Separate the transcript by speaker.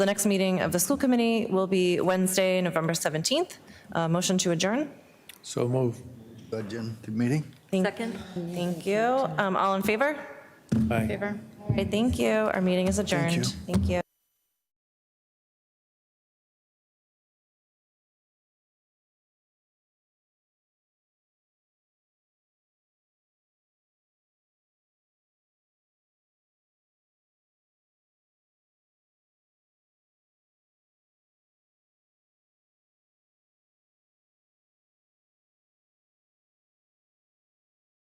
Speaker 1: The next meeting of the school committee will be Wednesday, November 17th. Uh, Motion to adjourn.
Speaker 2: So move.
Speaker 3: Budget meeting?
Speaker 1: Thank-
Speaker 4: Second?
Speaker 1: Thank you. Um, All in favor?
Speaker 2: Aye.
Speaker 1: All right, thank you. Our meeting is adjourned. Thank you.